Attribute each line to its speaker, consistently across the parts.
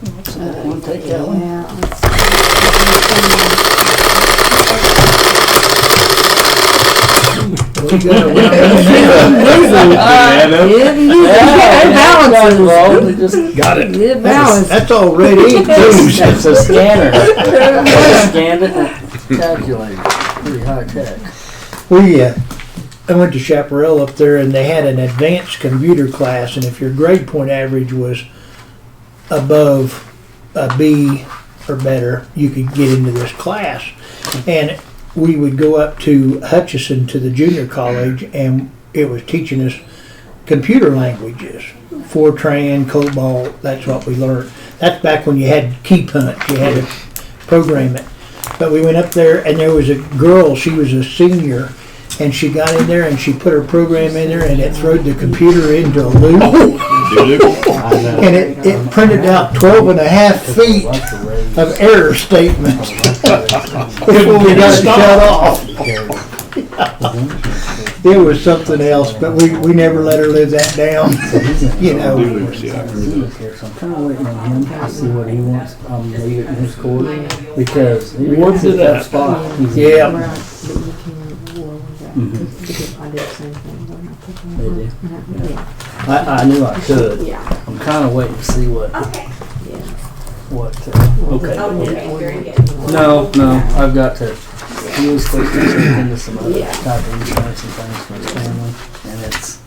Speaker 1: We'll take that one.
Speaker 2: Yeah.
Speaker 1: We got a round- Well, we just-
Speaker 3: Got it.
Speaker 2: It balanced.
Speaker 1: That's all red ink, too.
Speaker 4: It's a scanner. They Scanned it. and-
Speaker 1: Calculated, pretty high tech.
Speaker 3: We, uh, I went to Chaparral up there and they had an advanced computer class and if your grade point average was above a B or better, you could get into this class. And we would go up to Hutchinson to the junior college and it was teaching us computer languages. Fortran, COBOL, that's what we learned. That's back when you had key punch, you had to program it. But we went up there and there was a girl, she was a senior, and she got in there and she put her program in there and it throwed the computer into a loop. And it, it printed out 12 and a half feet of error statements before we got it shut off. It was something else, but we, we never let her live that down, you know.
Speaker 1: I'm kind of waiting on him to see what he wants, um, leave it in his court, because he
Speaker 4: What
Speaker 1: wants
Speaker 4: did
Speaker 1: it that
Speaker 4: that-
Speaker 1: spot. He's-
Speaker 3: Yeah.
Speaker 2: Mm-hmm.
Speaker 1: Maybe. I, I knew I could. I'm kind of waiting to see what,
Speaker 5: Okay.
Speaker 1: what, uh,
Speaker 2: Oh,
Speaker 1: okay.
Speaker 5: Okay, very good.
Speaker 1: No, no, I've got to, he was supposed to check into some other
Speaker 5: Yeah.
Speaker 1: type of insurance and things for his family, and it's,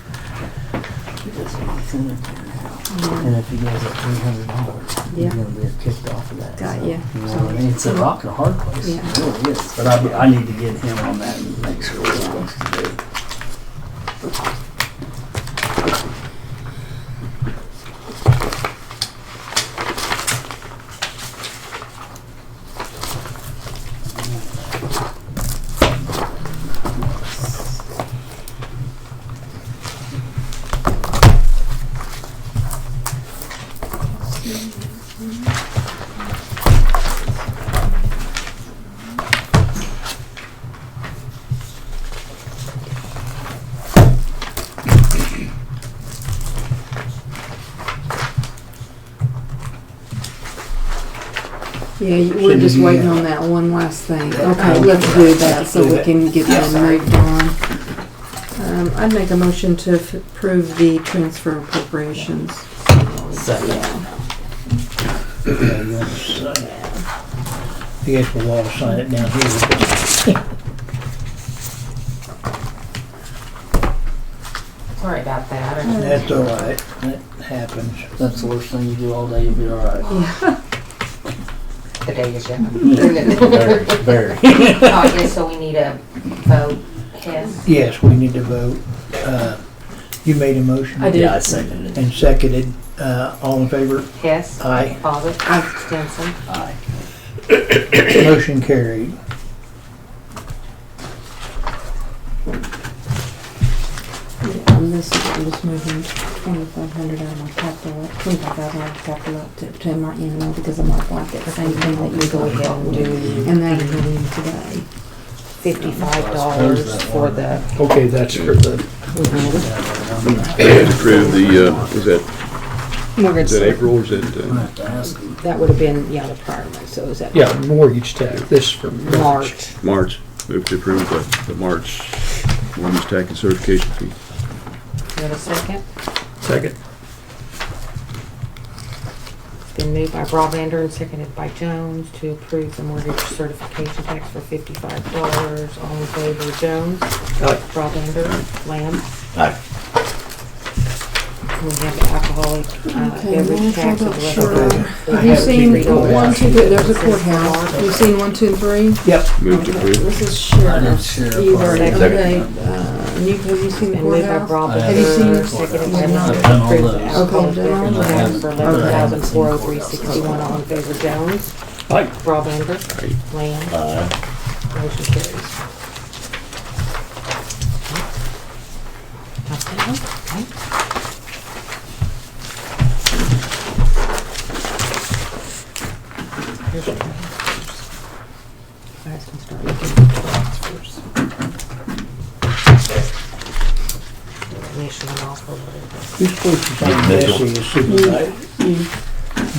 Speaker 1: it's in there. and if he goes up three hundred dollars, he's
Speaker 2: Yeah.
Speaker 1: gonna be kicked off of that.
Speaker 2: Got
Speaker 1: so,
Speaker 2: ya.
Speaker 1: know what I mean? It's a rock and a hard place,
Speaker 2: Yeah.
Speaker 1: it really is, but I, I need to get him on that and make sure what he wants to do.
Speaker 2: Yeah, you- we're just waiting on that one last thing. Okay, let's do that so we can get that moved on. Um, I'd make a motion to f- approve the transfer appropriations.
Speaker 1: Second.
Speaker 3: I guess we'll all sign it down here.
Speaker 5: Sorry about that.
Speaker 2: Mm.
Speaker 3: That's all right. That happens.
Speaker 1: That's the worst thing you do all day, you'll be all right.
Speaker 5: The day is
Speaker 1: Very, very.
Speaker 5: Oh, yes, so we need a vote, yes.
Speaker 3: Yes, we need to vote. Uh, You made a motion?
Speaker 2: I did.
Speaker 1: Yeah, I seconded it.
Speaker 3: And seconded, uh, all in favor?
Speaker 5: Hess,
Speaker 3: Aye.
Speaker 5: Bobbit, Stinson.
Speaker 1: Aye.
Speaker 3: Motion carried.
Speaker 2: I'm just, I'm just moving twenty-five hundred out of my capital, twenty-five thousand out of capital up to, to my annual because I'm not like that same thing that you go ahead and do. And that I'm doing today.
Speaker 6: fifty-five dollars for the,
Speaker 3: Okay, that's for the.
Speaker 7: approve the, uh, is that,
Speaker 6: mortgage.
Speaker 7: is that April or is that,
Speaker 1: I
Speaker 7: uh,
Speaker 1: have to ask him.
Speaker 6: That would have been, yeah, the prior month, so is that?
Speaker 3: mortgage tax, this for
Speaker 6: March.
Speaker 7: March? Move to approve the, the March women's tax and certification fee.
Speaker 6: You have a second?
Speaker 3: Second.
Speaker 6: It's been moved by Broadbander and seconded by Jones to approve the mortgage certification tax for fifty-five dollars. All in favor, Jones?
Speaker 3: Aye.
Speaker 6: Broadbander? Lamb? We have the alcoholic uh,
Speaker 2: Okay,
Speaker 6: beverage
Speaker 2: Lance, I'm
Speaker 6: tax. of
Speaker 2: not sure.
Speaker 6: $11.
Speaker 2: Have you seen one, two, three, there's a courthouse, have you seen one, two, and three?
Speaker 3: Yep,
Speaker 7: Move to approve.
Speaker 2: This is
Speaker 1: I did
Speaker 2: sheriff.
Speaker 1: share.
Speaker 2: You've already,
Speaker 6: Second.
Speaker 2: okay, uh, you, have you seen the
Speaker 6: Been moved by
Speaker 2: courthouse?
Speaker 6: Broadbander.
Speaker 2: Have you seen it?
Speaker 6: Seconded
Speaker 2: We've
Speaker 6: by
Speaker 2: not.
Speaker 6: Lamb
Speaker 1: I've done all
Speaker 6: to approve the
Speaker 1: those.
Speaker 6: alcoholic
Speaker 2: Okay. Okay.
Speaker 6: beverage tax for
Speaker 1: Okay.
Speaker 6: eleven thousand four oh three sixty-one. All in favor, Jones?
Speaker 3: Aye.
Speaker 6: Broadbander? Lamb? Motion carries. That's it, huh? Okay. Here's your transfers. You guys can start looking at the transfers. Donation and offer, whatever.
Speaker 3: who's supposed to sign this is supervisor?